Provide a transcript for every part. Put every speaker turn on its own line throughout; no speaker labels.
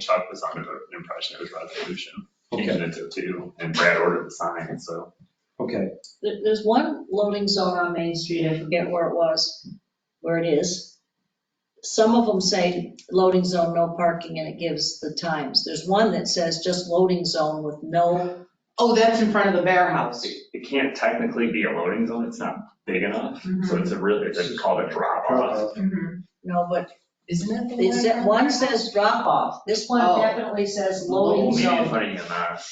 Chuck was under the impression it was resolution. He
Okay,
meant it too, and Brad ordered the sign, so.
okay.
There- There's one loading zone on Main Street, I forget where it was, where it is. Some of them say loading zone, no parking, and it gives the times. There's one that says just loading zone with no,
Oh, that's in front of the bear house.
It it can't technically be a loading zone, it's not big enough, so it's a really, it's called a drop off.
Mm.
Mhm.
no, but
Isn't it? the
it said, one says drop off. This one
Oh.
definitely says loading
Only
zone.
putting in that.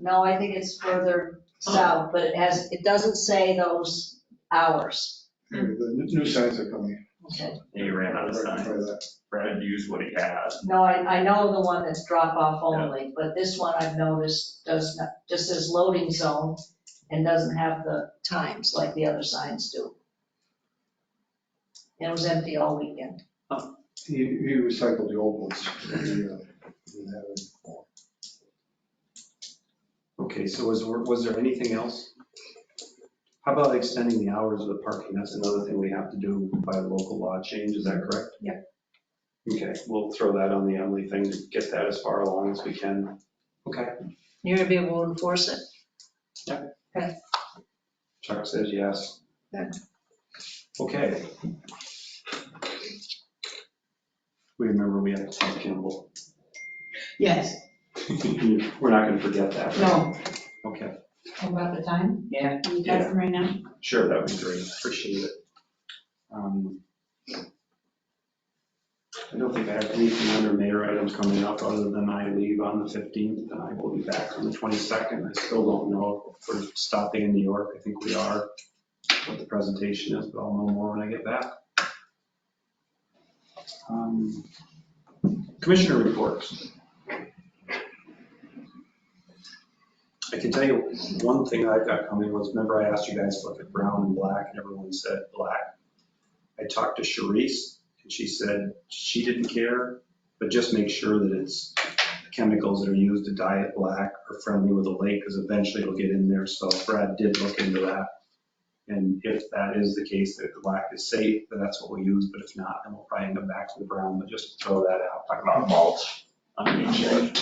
No, I think it's further south, but it has, it doesn't say those hours.
The n- new signs are coming.
Okay.
He ran out of
Try
signs.
that.
Brad used what he had.
No, I, I know the one that's drop off only, but this one I've noticed does not, just says loading zone and doesn't have the times like the other signs do. And it was empty all weekend.
He, he recycled the old ones. He, uh, didn't have it before.
Okay, so was, was there anything else? How about extending the hours of the parking? That's another thing we have to do by local law change, is that correct?
Yeah.
Okay, we'll throw that on the Emily thing to get that as far along as we can. Okay,
You're gonna be able to enforce it.
Chuck says yes.
Good.
Okay. We remember we had Ted Kimball.
Yes,
We're not gonna forget that. right?
no.
Okay,
About the time? Yeah.
Can you got them right now?
sure, that would be great, appreciate it. Um, I don't think I have anything under mayor items coming up, other than I leave on the 15th, and I will be back on the 22nd. I still don't know if we're stopping in New York, I think we are, what the presentation is, but I'll know more when I get back. Um, Commissioner reports. I can tell you one thing I've got coming was, remember I asked you guys to look at brown and black, and everyone said black. I talked to Sharice, and she said she didn't care, but just make sure that it's the chemicals that are used to dye it black are friendly with the lake, because eventually it'll get in there, so Brad did look into that. And if that is the case, that the black is safe, then that's what we'll use, but if not, then we'll probably end up back to the brown, but just throw that out.
Talk about mulch. I mean, shit.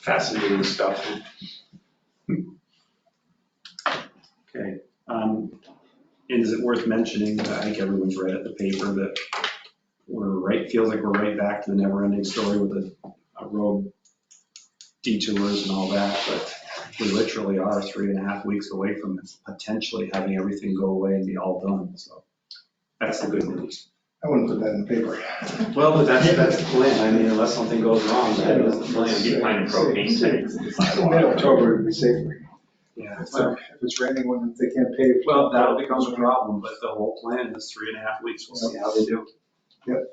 Fascinating stuff. Okay, um, and is it worth mentioning, that I think everyone's read it, the paper, that we're right, feels like we're right back to the never-ending story with the uh, road detours and all that, but we literally are three and a half weeks away from potentially having everything go away and be all done, so that's the good news.
I wouldn't put that in the paper.
Well, but that's, that's the plan, I mean, unless something goes wrong, that is the
Keep
plan.
finding propane tanks in the sidewalk.
Mid-October would be safer.
Yeah.
If it's raining when they can't pave.
Well, that'll become a problem, but the whole plan is three and a half weeks, we'll see how they do.
Yep.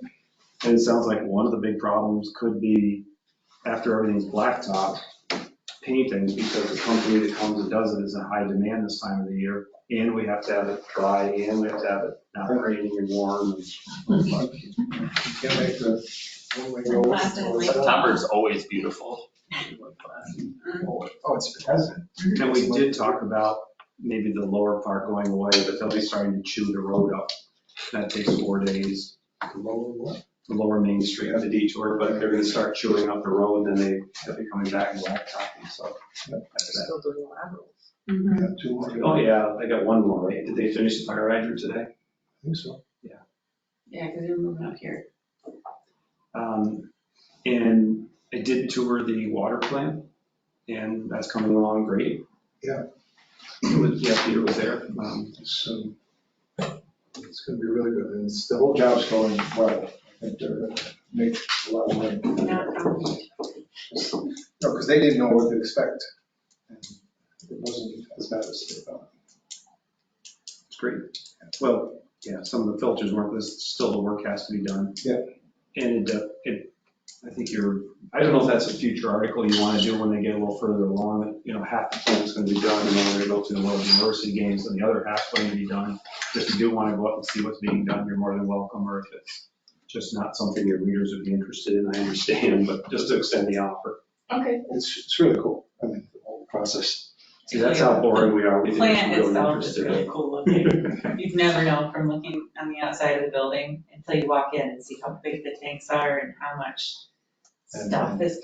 And it sounds like one of the big problems could be, after everything's blacktop, painting, because the company that comes and does it is in high demand this time of the year, and we have to have it dry, and we have to have it not raining and warm. and-
You Can't make the. one-way road.
Last and last.
September's always beautiful.
Oh, it's present.
And we did talk about maybe the lower part going away, but they'll be starting to chew the road up. That takes four days. the lower Main Street, the detour, but they're gonna start chewing up the road, and then they, they'll be coming back and blacktopping, so.
Still doing laterals.
We got two more.
Oh, yeah, they got one more, right? Did they finish the fire hydrant today?
I think so.
Yeah, because they're moving up here.
Um, and I did tour the water plant, and that's coming along great.
Yeah.
It was- Yeah, Peter was there. Um,
So it's going to be really good. And it's, the whole job's going well. I think they're going to make a lot of money.
Not a problem.
No, because they didn't know what to expect. and It wasn't as bad as they thought.
It's great. Well, yeah, some of the filters weren't, there's still the work has to be done.
Yeah.
And it, uh, it, I think you're, I don't know if that's a future article you want to do when they get a little further along, that, you know, half the plant's going to be done, and then we're going to go to the World University Games, and the other half's going to be done. If you do want to go up and see what's being done, you're more than welcome, or if it's just not something your readers would be interested in, I understand, but just to extend the offer.
Okay.
It's, it's really cool. I mean, the whole process.
See, that's how boring we are. We
The
think
plant
we're
itself is
interested in
really
it.
cool looking. You'd never know from looking on the outside of the building until you walk in and see how big the tanks are and how much
And-
stuff is